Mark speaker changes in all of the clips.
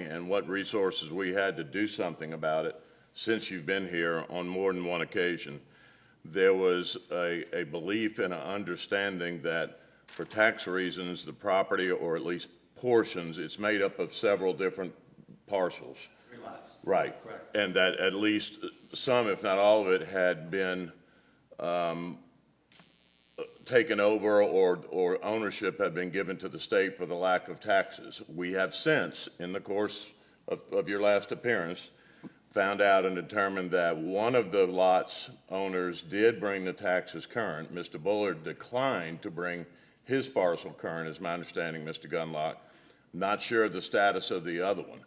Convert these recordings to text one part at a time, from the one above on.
Speaker 1: and what resources we had to do something about it since you've been here on more than one occasion. There was a, a belief and an understanding that for tax reasons, the property, or at least portions, it's made up of several different parcels.
Speaker 2: Three lots.
Speaker 1: Right.
Speaker 2: Correct.
Speaker 1: And that at least some, if not all of it, had been um, taken over or, or ownership had been given to the state for the lack of taxes. We have since, in the course of, of your last appearance, found out and determined that one of the lot's owners did bring the taxes current. Mr. Bullard declined to bring his parcel current, is my understanding, Mr. Gunlock. Not sure of the status of the other one.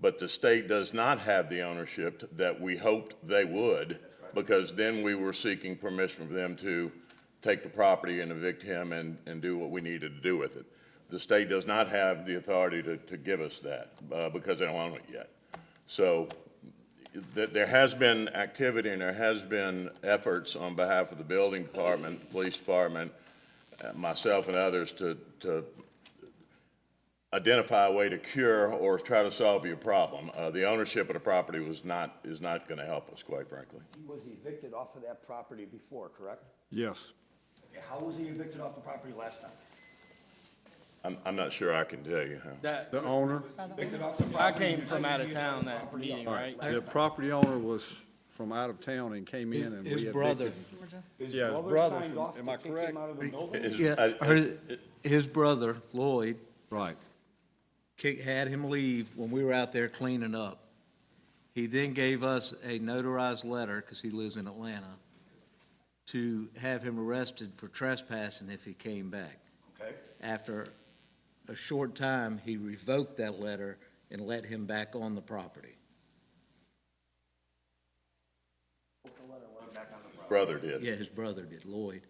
Speaker 1: But the state does not have the ownership that we hoped they would, because then we were seeking permission from them to take the property and evict him and, and do what we needed to do with it. The state does not have the authority to, to give us that, uh, because they don't own it yet. So th- there has been activity and there has been efforts on behalf of the building department, the police department, uh, myself and others to, to identify a way to cure or try to solve your problem. Uh, the ownership of the property was not, is not gonna help us, quite frankly.
Speaker 2: He was evicted off of that property before, correct?
Speaker 3: Yes.
Speaker 2: Okay, How was he evicted off the property last time?
Speaker 1: I'm, I'm not sure I can tell you how.
Speaker 4: That,
Speaker 3: The owner,
Speaker 2: Evicted off the
Speaker 4: I
Speaker 2: property.
Speaker 4: came from out of town that meeting, right?
Speaker 3: the property owner was from out of town and came in and we
Speaker 5: His
Speaker 3: evicted.
Speaker 5: brother,
Speaker 2: His
Speaker 3: Yeah, his
Speaker 2: brother
Speaker 3: brother
Speaker 2: signed
Speaker 3: from-
Speaker 2: off to
Speaker 3: am I
Speaker 2: kick him
Speaker 3: correct?
Speaker 2: out of the building?
Speaker 1: Is-
Speaker 5: yeah,
Speaker 1: I-
Speaker 5: her- his brother Lloyd
Speaker 3: Right.
Speaker 5: kick- had him leave when we were out there cleaning up. He then gave us a notarized letter, because he lives in Atlanta, to have him arrested for trespassing if he came back.
Speaker 2: Okay,
Speaker 5: After a short time, he revoked that letter and let him back on the property.
Speaker 1: Brother did.
Speaker 5: Yeah, his brother did, Lloyd.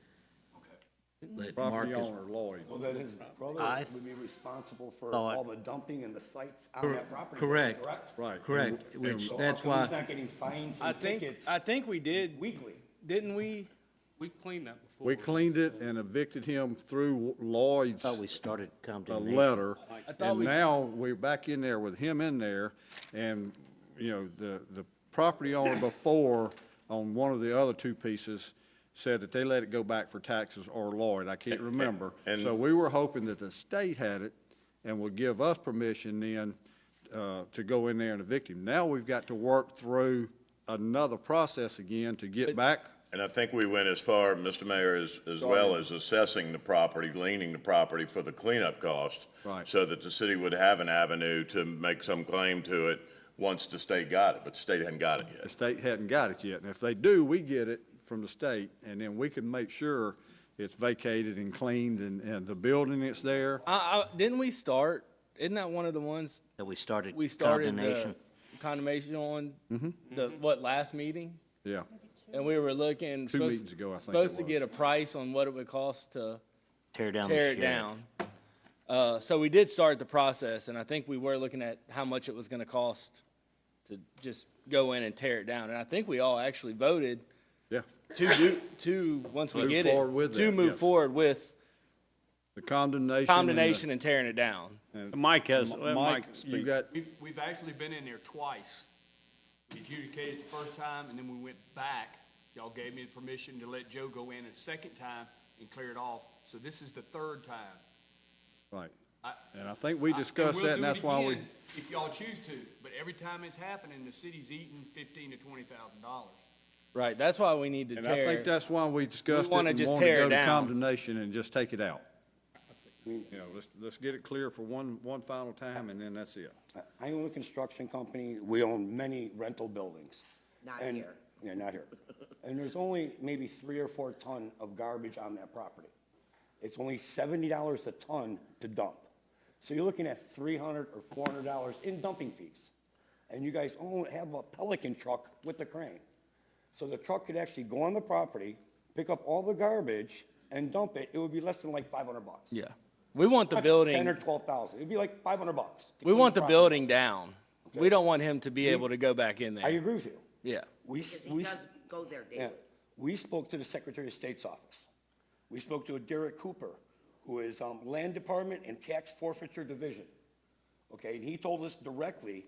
Speaker 5: Let
Speaker 3: Property
Speaker 5: Marcus-
Speaker 3: owner Lloyd.
Speaker 2: well, then his brother
Speaker 6: I
Speaker 2: would be responsible for
Speaker 6: thought-
Speaker 2: all the dumping and the sites on that property.
Speaker 5: Correct.
Speaker 2: Correct?
Speaker 3: Right.
Speaker 5: Correct, which,
Speaker 2: So how
Speaker 5: that's
Speaker 2: come He's
Speaker 5: why,
Speaker 2: not getting fines
Speaker 4: I
Speaker 2: and
Speaker 4: think,
Speaker 2: tickets
Speaker 4: I think we did,
Speaker 2: weekly.
Speaker 4: didn't we?
Speaker 7: We cleaned that before.
Speaker 3: We cleaned it and evicted him through Lloyd's,
Speaker 6: Thought we started
Speaker 3: the
Speaker 6: condemnation.
Speaker 3: letter.
Speaker 4: thought
Speaker 3: And
Speaker 4: we-
Speaker 3: now we're back in there with him in there and, you know, the, the property owner before on one of the other two pieces said that they let it go back for taxes or Lloyd, I can't remember.
Speaker 1: and-
Speaker 3: So we were hoping that the state had it and would give us permission then uh, to go in there and evict him. Now we've got to work through another process again to get back
Speaker 1: And I think we went as far, Mr. Mayor, as, as well as assessing the property, leaning the property for the cleanup cost.
Speaker 3: Right.
Speaker 1: So that the city would have an avenue to make some claim to it once the state got it, but the state hadn't got it
Speaker 3: The
Speaker 1: yet.
Speaker 3: state hadn't got it yet, and if they do, we get it from the state, and then we can make sure it's vacated and cleaned and, and the building that's there.
Speaker 4: I, I, didn't we start, isn't that one of the ones
Speaker 6: That we started
Speaker 4: we started the
Speaker 6: condemnation.
Speaker 4: condemnation on?
Speaker 3: Mm-hmm.
Speaker 4: The, what, last meeting?
Speaker 3: Yeah,
Speaker 4: And we were looking.
Speaker 3: Two
Speaker 4: supposed-
Speaker 3: meetings ago, I think it
Speaker 4: Supposed to
Speaker 3: was.
Speaker 4: get a price on what it would cost to
Speaker 6: Tear down the
Speaker 4: tear it
Speaker 6: shed.
Speaker 4: down. Uh, so we did start the process, and I think we were looking at how much it was gonna cost to just go in and tear it down. And I think we all actually voted
Speaker 3: yeah,
Speaker 4: to do, to, once we
Speaker 3: Move
Speaker 4: get it,
Speaker 3: forward with
Speaker 4: to
Speaker 3: that,
Speaker 4: move
Speaker 3: yes.
Speaker 4: forward with
Speaker 3: the condemnation. and the-
Speaker 4: condemnation and tearing it down.
Speaker 8: Mike has,
Speaker 3: M-
Speaker 8: let
Speaker 3: Mike,
Speaker 8: Mike
Speaker 3: you
Speaker 8: speak.
Speaker 3: got,
Speaker 9: We've, we've actually been in there twice. We Adjudicated the first time, and then we went back. Y'all gave me the permission to let Joe go in a second time and clear it off. So this is the third time.
Speaker 3: right,
Speaker 9: I-
Speaker 3: and I think we
Speaker 9: I-
Speaker 3: discussed
Speaker 9: we'll
Speaker 3: that, and
Speaker 9: do it
Speaker 3: that's why we,
Speaker 9: again If y'all choose to, but every time it's happening, the city's eating fifteen to twenty thousand dollars.
Speaker 4: Right, that's why we need to
Speaker 3: and I
Speaker 4: tear.
Speaker 3: think that's why we discussed it and
Speaker 4: wanna
Speaker 3: wanted to
Speaker 4: just tear it
Speaker 3: go to
Speaker 4: down.
Speaker 3: condemnation and just take it out. You know, let's, let's get it clear for one, one final time, and then that's it.
Speaker 2: I own a construction company, we own many rental buildings.
Speaker 10: Not
Speaker 2: And-
Speaker 10: here.
Speaker 2: Yeah, not here. And there's only maybe three or four ton of garbage on that property. It's only seventy dollars a ton to dump. So you're looking at three hundred or four hundred dollars in dumping fees. And you guys own, have a Pelican truck with the crane. So the truck could actually go on the property, pick up all the garbage and dump it, it would be less than like five hundred bucks.
Speaker 4: Yeah, we want the
Speaker 2: Ten or
Speaker 4: building,
Speaker 2: twelve thousand, it'd be like five hundred bucks. to
Speaker 4: we
Speaker 2: clean
Speaker 4: want the
Speaker 2: property.
Speaker 4: building down. We don't want him to be able to go back in
Speaker 2: I
Speaker 4: there.
Speaker 2: agree with you.
Speaker 4: Yeah,
Speaker 2: We, s-
Speaker 10: Because he
Speaker 2: we, s-
Speaker 10: does go there
Speaker 2: yeah,
Speaker 10: daily.
Speaker 2: we spoke to the Secretary of State's office. We spoke to Derek Cooper, who is um, Land Department and Tax Forfeiture Division. okay? And he told us directly